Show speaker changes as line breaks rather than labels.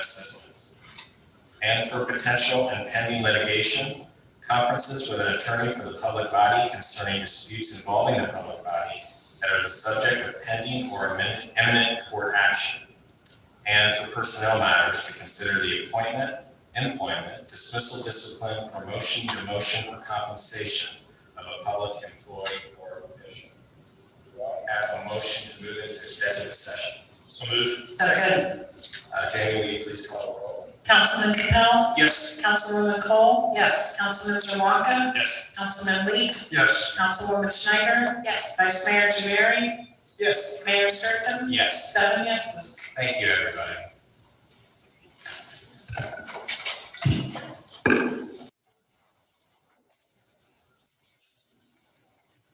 and for potential and pending litigation, conferences with an attorney for the public body concerning disputes involving the public body that are the subject of pending or imminent- imminent court action, and for personnel matters to consider the appointment, employment, dismissal, discipline, promotion, demotion, or compensation of a public employee or official. Do I Have a motion to move into executive session. Move.
Second.
Uh, Jamie, will you please call the roll?
Councilman Capel?
Yes.
Councilwoman Cole? Yes. Councilman Zerwanka?
Yes.
Councilman Lee?
Yes.
Councilwoman Schneider? Yes. Vice Mayor Javari?
Yes.
Mayor Serpen?
Yes.
Seven yeses.
Thank you, everybody.